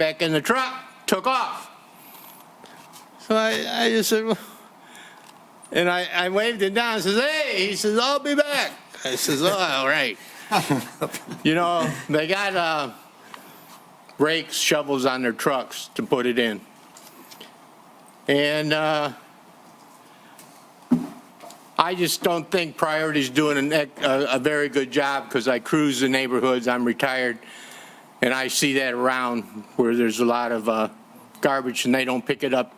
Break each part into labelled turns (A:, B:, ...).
A: back in the truck, took off. So I, I just said, "Well," and I, I waved him down, I says, hey, he says, I'll be back. I says, oh, all right. You know, they got, uh, rakes, shovels on their trucks to put it in. And, uh, I just don't think priority's doing an ec- a, a very good job because I cruise the neighborhoods, I'm retired, and I see that around where there's a lot of uh, garbage and they don't pick it up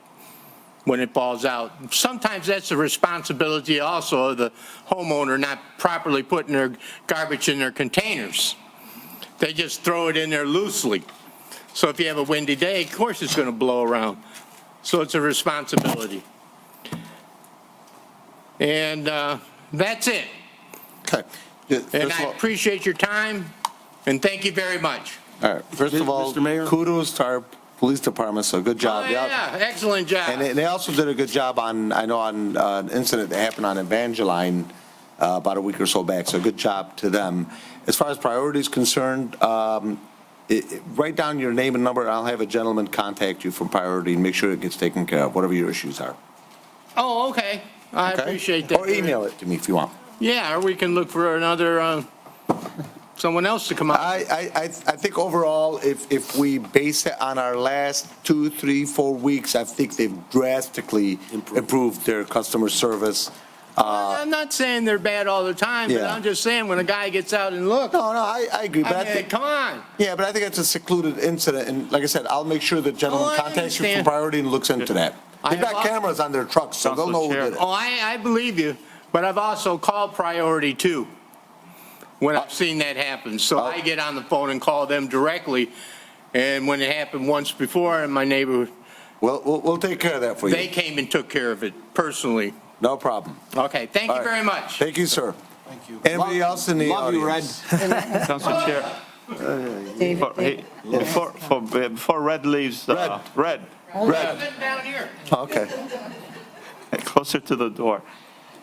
A: when it falls out. Sometimes that's the responsibility also of the homeowner not properly putting their garbage in their containers. They just throw it in there loosely. So if you have a windy day, of course it's going to blow around. So it's a responsibility. And uh, that's it.
B: Okay. Yeah,
A: And
B: First
A: I
B: of all,
A: appreciate your time, and thank you very much.
B: all right, first of all,
C: Mr. Mayor?
B: kudos to our police department, so good
A: Oh,
B: job. They al-
A: yeah, excellent job.
B: And they- they also did a good job on, I know, on uh, an incident that happened on Evangeline uh, about a week or so back, so good job to them. As far as priorities concerned, um, it- it- write down your name and number, and I'll have a gentleman contact you from priority and make sure it gets taken care of, whatever your issues are.
A: Oh, okay. I
B: okay?
A: appreciate that.
B: Or email it to me if you want.
A: Yeah, or we can look for another, uh, someone else to come out.
B: I, I, I I think overall, if, if we base it on our last two, three, four weeks, I think they've drastically improved their customer service.
A: I'm not saying they're bad all the time, but
B: Uh, Yeah.
A: I'm just saying when a guy gets out and looks,
B: No, no, I, I agree, but I
A: I mean,
B: think,
A: come on.
B: yeah, but I think it's a secluded incident, and like I said, I'll make sure the
A: Oh,
B: gentleman
A: I
B: contacts you from
A: understand.
B: priority and looks into that.
A: I
B: They've
A: have
B: got
A: al-
B: cameras on their trucks, so they'll know who did it.
A: Oh, I, I believe you, but I've also called priority too, when I've seen that happen. So
B: Oh.
A: I get on the phone and call them directly, and when it happened once before in my neighborhood,
B: We'll, we'll, we'll take care of that for
A: they
B: you.
A: came and took care of it personally.
B: No problem.
A: Okay, thank
B: All
A: you
B: right.
A: very much.
B: Thank you, sir. Thank you. Anybody else in the
C: Love you, Red.
B: audience?
D: Council Chair,
E: David,
D: for- hey, before, for- before Red leaves, uh, Red,
B: Red.
A: Sitting down here.
B: Okay.
D: closer to the door.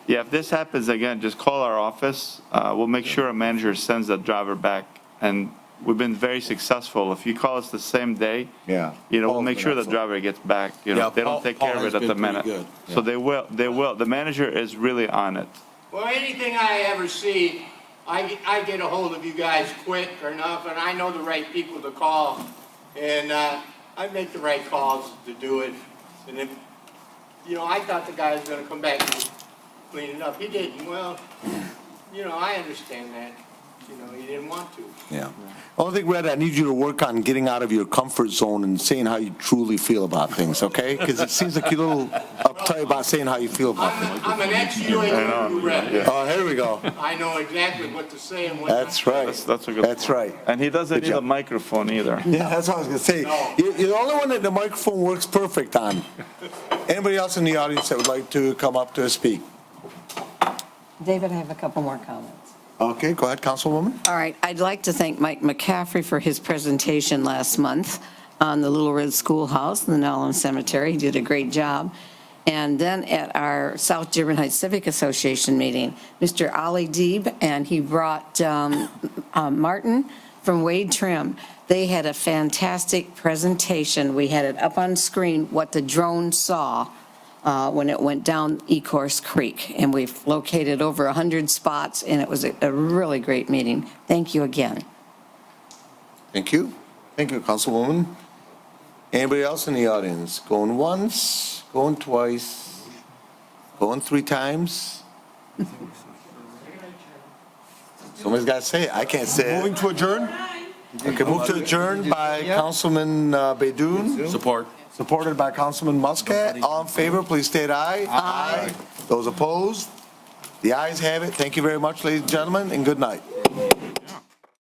D: Yeah, if this happens again, just call our office. Uh, We'll make sure a manager sends that driver back. And we've been very successful. If you call us the same day,
B: Yeah.
D: you know, we'll
B: Paul's
D: make
B: been
D: sure the
B: excellent.
D: driver gets back, you know,
C: Yeah,
D: if they
C: Paul-
D: don't take care
C: Paul
D: of
C: has
D: it at the
C: been pretty
D: minute.
C: good,
D: So they will, they will. The manager is really on it.
A: Well, anything I ever see, I, I get a hold of you guys quick or enough, and I know the right people to call. And, uh, I make the right calls to do it. And if, you know, I thought the guy was gonna come back and clean it up. He didn't. Well, you know, I understand that. You know, he didn't want to.
B: Yeah. Only thing, Red, I need you to work on getting out of your comfort zone and saying how you truly feel about things, okay? Because it seems like you're a little uptight about saying how you feel about things.
A: I'm, I'm an ex-UAW who rep.
B: Oh, here we go.
A: I know exactly what to say and what not to
B: That's
A: say.
B: right.
D: That's, that's a good.
B: That's
D: point.
B: right.
D: And he doesn't
B: Good
D: need a
B: job.
D: microphone either.
B: Yeah, that's what I was gonna say. You're, you're the only one that the microphone works perfect on. Anybody else in the audience that would like to come up to speak?
E: David, I have a couple more comments.
B: Okay, go ahead, Councilwoman.
E: All right, I'd like to thank Mike McCaffrey for his presentation last month on the Little Red Schoolhouse and the Nolan Cemetery. He did a great job. And then at our South Dearborn Heights Civic Association meeting, Mr. Ali Deeb, and he brought um, uh, Martin from Wade Trim. They had a fantastic presentation. We had it up on screen, what the drone saw uh, when it went down Ecorse Creek. And we've located over 100 spots, and it was a a really great meeting. Thank you again.
B: Thank you. Thank you, Councilwoman. Anybody else in the audience? Going once, going twice, going three times? Somebody's got to say it. I can't say it.
C: Moving to adjourn?
B: Okay, move to adjourn by Councilman uh, Baidoon,
C: Support.
B: supported by Councilman Muscat. All in favor, please state aye. Aye. Those opposed? The ayes have it. Thank you very much, ladies and gentlemen, and good night.